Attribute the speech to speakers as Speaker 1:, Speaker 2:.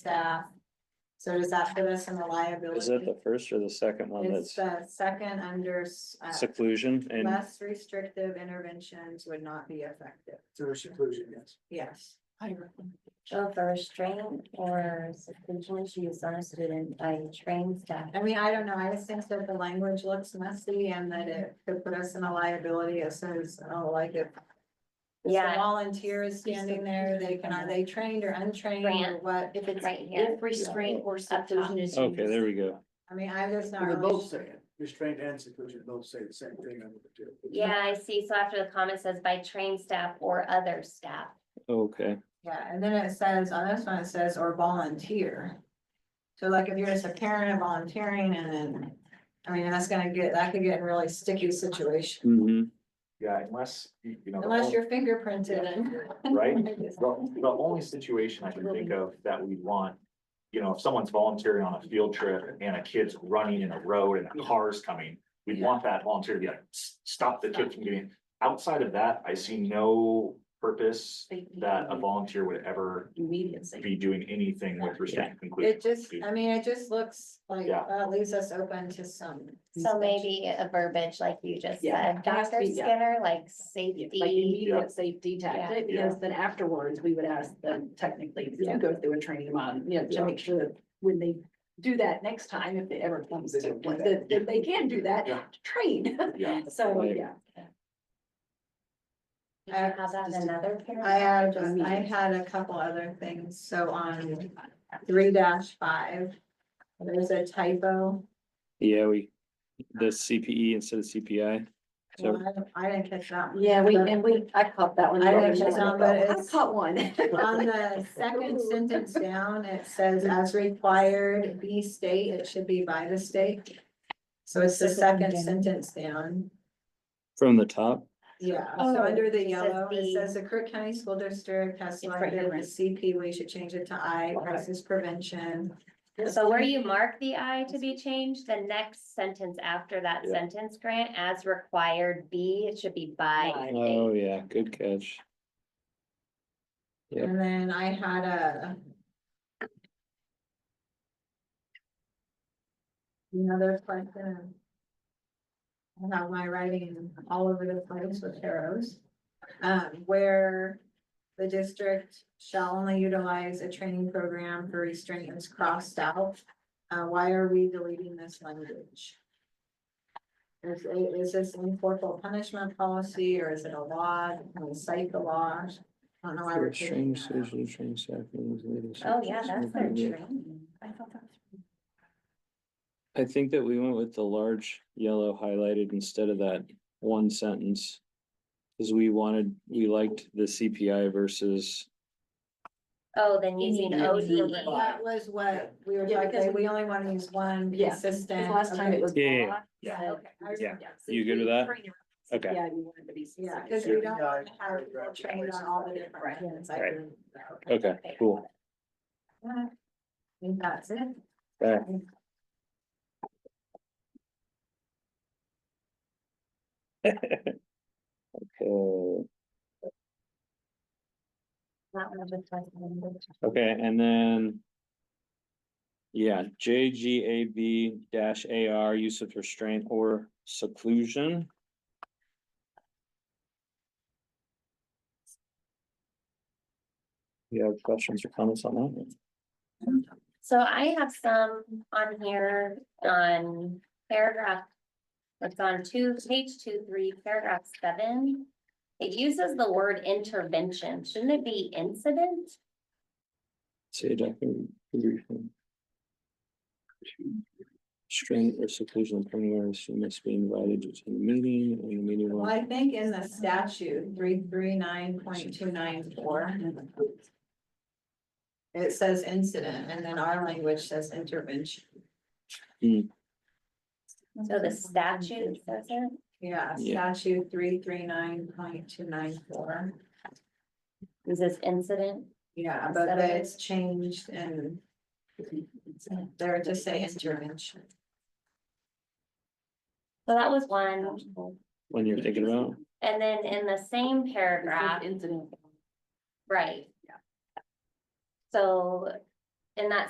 Speaker 1: staff. So does that put us in a
Speaker 2: Is it
Speaker 1: liability?
Speaker 2: the first or the second one
Speaker 1: It's
Speaker 2: that's
Speaker 1: the second under, s- uh,
Speaker 2: seclusion and
Speaker 1: less restrictive interventions would not be effective,
Speaker 3: To seclusion, yes.
Speaker 1: yes.
Speaker 4: So for restraint or seclusion issues on a student by trained staff.
Speaker 1: I mean, I don't know, I just think that the language looks messy and that it could put us in a liability as soon as, oh, like if. the
Speaker 4: Yeah,
Speaker 1: Volunteer is standing there, they can, are they trained or untrained or
Speaker 4: Grant.
Speaker 1: what?
Speaker 5: If it's
Speaker 4: Right here.
Speaker 5: if restraint or seclusion is.
Speaker 2: Okay,
Speaker 5: used.
Speaker 2: there we go.
Speaker 1: I mean, I just not
Speaker 3: Well, They both
Speaker 1: really,
Speaker 3: say it, restraint and seclusion both say the same thing under the two.
Speaker 4: yeah, I see. So after the comment says by trained staff or other staff.
Speaker 2: Okay,
Speaker 1: yeah, and then it says, on this one, it says, or volunteer. So like if you're just a parent and volunteering and then, I mean, that's gonna get, that could get in really sticky situation.
Speaker 2: hmm
Speaker 6: Yeah, unless, you you know. the
Speaker 1: Unless
Speaker 6: only-
Speaker 1: you're fingerprinted and.
Speaker 6: Right, the, the only situation I can think of that we'd want, you know, if someone's volunteering on a field trip and a kid's running in a road and a car's coming. We'd want that volunteer to be like, "S- stop the kid from getting, outside of that, I see no purpose that
Speaker 1: Mm-hmm.
Speaker 6: a volunteer would ever
Speaker 5: Immediate safety.
Speaker 6: be doing anything with respect. to inclusion.
Speaker 1: It just, uh, I mean, it just looks like,
Speaker 6: Yeah.
Speaker 1: uh, leaves us open to some.
Speaker 4: So maybe a verbiage like you just
Speaker 5: Yeah,
Speaker 4: said,
Speaker 5: it has to
Speaker 4: Dr.
Speaker 5: be, yeah.
Speaker 4: Skinner, like
Speaker 5: Yeah,
Speaker 4: safety.
Speaker 5: Like
Speaker 6: Yeah.
Speaker 5: immediate safety tactic,
Speaker 6: Yeah.
Speaker 5: because then afterwards, we would ask them technically
Speaker 6: Yeah.
Speaker 5: to go through a training on, you know,
Speaker 6: Yeah.
Speaker 5: to make sure that when they do that next time, if it ever comes
Speaker 3: They
Speaker 5: to,
Speaker 3: don't do
Speaker 5: one,
Speaker 3: that.
Speaker 5: that, that they can do that,
Speaker 6: Yeah.
Speaker 5: to train,
Speaker 6: Yeah,
Speaker 5: so,
Speaker 2: Right.
Speaker 5: yeah.
Speaker 4: Did you have that in another
Speaker 1: I
Speaker 4: paragraph?
Speaker 1: had, just- I had a couple other things, so on three dash five, there's a typo.
Speaker 2: yeah, we, the CPE instead of CPI. So-
Speaker 1: Well, I I didn't catch that one.
Speaker 5: Yeah, we, and we, I caught that one.
Speaker 1: I
Speaker 5: I "Oh,
Speaker 1: didn't catch that, but it's-
Speaker 5: caught one.
Speaker 1: On the second sentence down, it says as required, be state, it should be by the state. So it's the second sentence down.
Speaker 2: From the top,
Speaker 1: Yeah,
Speaker 4: Oh,
Speaker 1: so under the
Speaker 4: it says
Speaker 1: yellow, it
Speaker 4: the-
Speaker 1: says the Kirk County School District has
Speaker 4: It's right
Speaker 1: selected the
Speaker 4: here, right.
Speaker 1: CP, we should change it to I,
Speaker 5: Okay.
Speaker 1: crisis prevention.
Speaker 4: Um, So where you mark the I to be changed, the next sentence after that
Speaker 2: Yeah.
Speaker 4: sentence, Grant, as required B, it should be by
Speaker 5: By.
Speaker 4: state.
Speaker 2: oh yeah, good catch. Yep.
Speaker 1: And then I had a. Another question. uh, I have my writing all over the place with arrows. Um, where the district shall only utilize a training program for restraint is crossed out. Uh, why are we deleting this language? Is, is this an corporal punishment policy or is it a law? Can we cite the law? I don't know why we're taking
Speaker 2: Train
Speaker 1: that out.
Speaker 2: station, train staff members, ladies.
Speaker 4: Oh, yeah, that's their
Speaker 2: Yeah.
Speaker 4: training. I thought that was.
Speaker 2: I think that we went with the large yellow highlighted instead of that one sentence. Cause we wanted, we liked the CPI versus,
Speaker 4: Oh, then using
Speaker 5: Yeah.
Speaker 4: ODE.
Speaker 1: That was what we were
Speaker 5: Yeah,
Speaker 1: talking,
Speaker 5: because
Speaker 1: about. we only want to use one
Speaker 5: Yeah,
Speaker 1: consistent.
Speaker 5: Last time it was.
Speaker 2: Yeah, yeah,
Speaker 5: blocked,
Speaker 6: yeah.
Speaker 2: Yeah.
Speaker 5: so-
Speaker 2: You good with that? Okay.
Speaker 5: Yeah, we wanted to be.
Speaker 1: Yeah,
Speaker 5: specific.
Speaker 1: because we don't want to have people trained on all the different.
Speaker 5: Right.
Speaker 1: methods. I
Speaker 2: Right.
Speaker 1: agree with that.
Speaker 2: okay, cool. Mm.
Speaker 1: I think That's it.
Speaker 2: Okay. Okay,
Speaker 4: That one was like number
Speaker 2: okay, and then. Yeah, J G A B dash A R, use of restraint or seclusion. You have questions or comments on that?
Speaker 4: So I have some on here on paragraph. It's on two, page two, three, paragraph seven. It uses the word intervention. Shouldn't it be incident?
Speaker 2: Say it, I can read from. Restraint or seclusion of anyone who must be invited to attend the meeting and the meeting.
Speaker 1: Well,
Speaker 2: will-
Speaker 1: I think in the statute, three, three, nine, point two, nine, four. It says incident and then our language says intervention.
Speaker 4: So the statute says it.
Speaker 1: Yeah,
Speaker 2: Yeah.
Speaker 1: statute three, three, nine, point two, nine, four.
Speaker 4: Is this incident?
Speaker 1: Yeah, but
Speaker 4: Instead of-
Speaker 1: it's changed and there to say intervention.
Speaker 4: So that was one.
Speaker 2: When you're thinking about,
Speaker 4: And then in the same paragraph,
Speaker 5: Incident.
Speaker 4: right?
Speaker 5: Yeah.
Speaker 4: So in that